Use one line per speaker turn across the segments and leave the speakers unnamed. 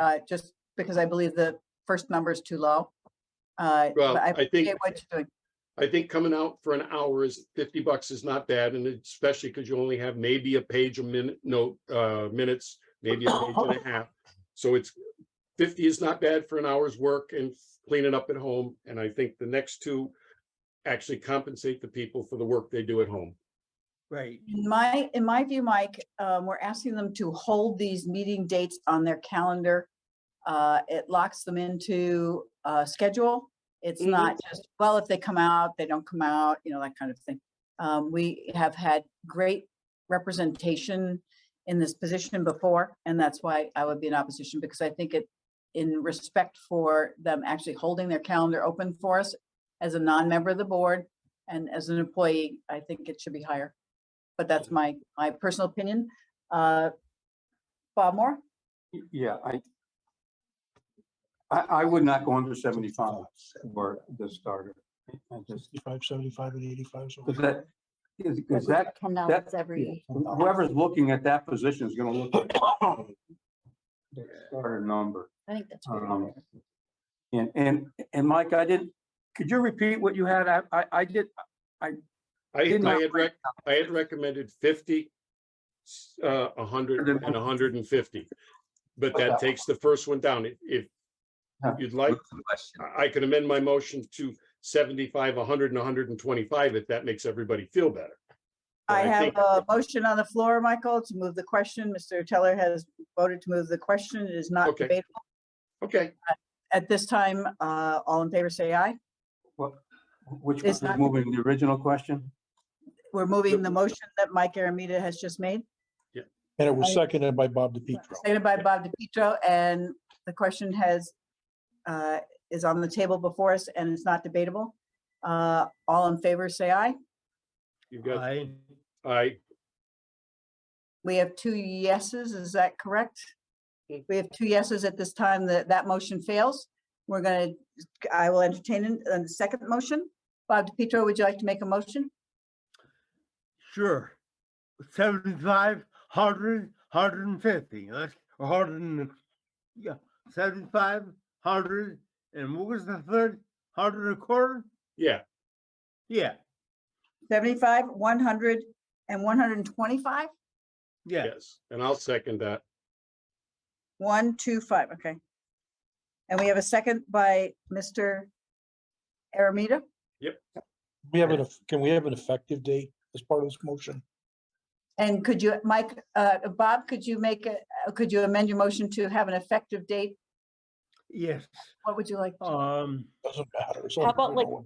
uh, just because I believe the first number is too low. Uh,
Well,
but I
I think,
appreciate what you're doing.
I think coming out for an hour is fifty bucks is not bad, and especially because you only have maybe a page a minute, no, uh, minutes, maybe a page and a half. So it's fifty is not bad for an hour's work and cleaning up at home, and I think the next two actually compensate the people for the work they do at home.
Right,
In my, in my view, Mike, um, we're asking them to hold these meeting dates on their calendar. Uh, it locks them into, uh, schedule. It's
Mhm.
not just, well, if they come out, they don't come out, you know, that kind of thing. Um, we have had great representation in this position before, and that's why I would be in opposition, because I think it, in respect for them actually holding their calendar open for us as a non-member of the board and as an employee, I think it should be higher but that's my, my personal opinion. Uh, Bob Moore?
Y- Yeah, I, I, I would not go under seventy-five for the starter. I just,
65, 75, and 85. so-
because that, is, is that,
Ten
that-
dollars every,
whoever's looking at that position is gonna look at the starter number.
I think that's. pretty
Um,
fair.
And, and, and Mike, I didn't, could you repeat what you had? I, I, I did,
I,
Did
I
not
had
break
rec, I had recommended fifty, s- uh, a hundred
Hundred and
and a hundred and fifty. But
Okay.
that takes the first one down. If- If
Yeah.
you'd like, I I could amend my motion to seventy-five, hundred and hundred and twenty-five, if that makes everybody feel better. But
I have
think-
a motion on the floor, Michael, to move the question. Mr. Teller has voted to move the question. It is not
Okay.
debatable.
Okay,
At this time, uh, all in favor, say aye.
which
It's
was
not-
moving the original question?
We're moving the motion that Mike Aramita has just made,
And it was
I-
seconded by Bob DePietro.
stated by Bob DePietro, and the question has, uh, is on the table before us and it's not debatable. Uh, all in favor, say aye.
you've got,
I,
I,
We have two yeses, is that correct?
Mm.
We have two yeses at this time, that, that motion fails. We're gonna, I will entertain an- a second motion. Bob DiPietro, would you like to make a motion?
sure. Seventy-five, hundred, hundred and fifty, that's a hundred and, yeah, seventy-five, hundred, and what was the third? Hundred and a quarter?
yeah,
Yeah,
75, 100, and 125?
yeah.
yes, and I'll second that.
125, okay. And we have a second by Mr. Aramita?
We have an, eff- can we have an effective date as part of this motion?
And could you, Mike, uh, Bob, could you make, a- uh, could you amend your motion to have an effective date?
Yes,
What would you like?
um,
Doesn't matter. it's
How
only
about, like,
one.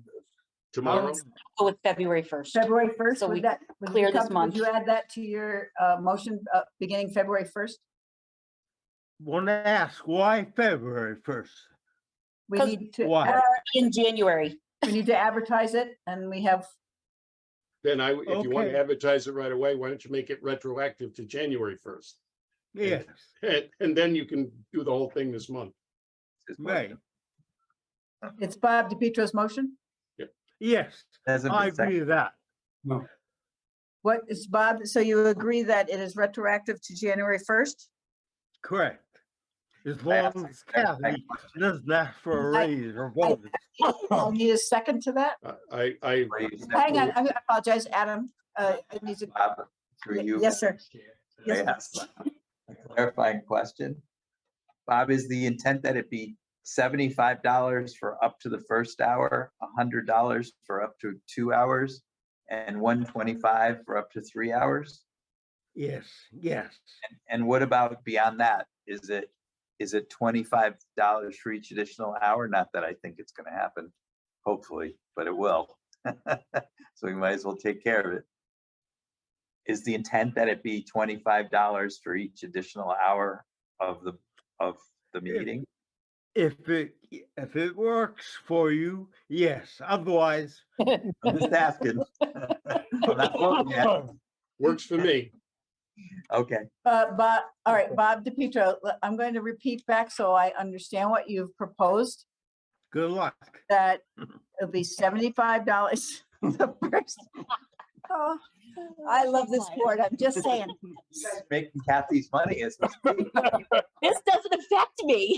Tomorrow,
go with February first.
February 1st?
So
would
we
that- would you
clear this
come-
month.
Would you add that to your uh, motion uh, beginning February 1st?
wanna ask why February first?
We
'Cause-
need to,
Why?
ad-
In January,
we need to advertise it and we have,
then I, if you want to
Okay.
advertise it right away, why don't you make it retroactive to January first?
Yes,
And, and then you can do the whole thing this month.
right,
it's Bob DiPietro's motion.
yes,
Hasn't
I
been seconded.
agree with that,
What is Bob, so you agree that it is retroactive to January 1st?
correct. As
I
long
asked
as
the exact same
Kathy
question.
doesn't ask for a
I-
raise or bonus.
I'll need a second to that.
I, I- I,
Were you
Hang on,
seconded,
I apologize, Adam. Uh, I need to-
Bob? Through you.
Yes, sir.
I
Yes,
asked a Clarifying question. Bob, is the intent that it be seventy-five dollars for up to the first hour, hundred dollars for up to two hours, and one twenty-five for up to three hours?
Yes, yes,
And what about beyond that? Is it, is it twenty-five dollars for each additional hour? Not that I think it's gonna happen, hopefully, but it will. So we might as well take care of it. Is the intent that it be twenty-five dollars for each additional hour of the, of the meeting?
if it, if it works for you, yes, otherwise,
I'm just asking. I'm not voting yet.
works for me.
Okay,
Uh, Bob, all right, Bob DiPietro, l- I'm going to repeat back so I understand what you've proposed.
good luck.
that it'll be seventy-five dollars the first. Oh, I love this board. I'm just saying.
You guys are Making Kathy's money as we speak.
This doesn't affect me.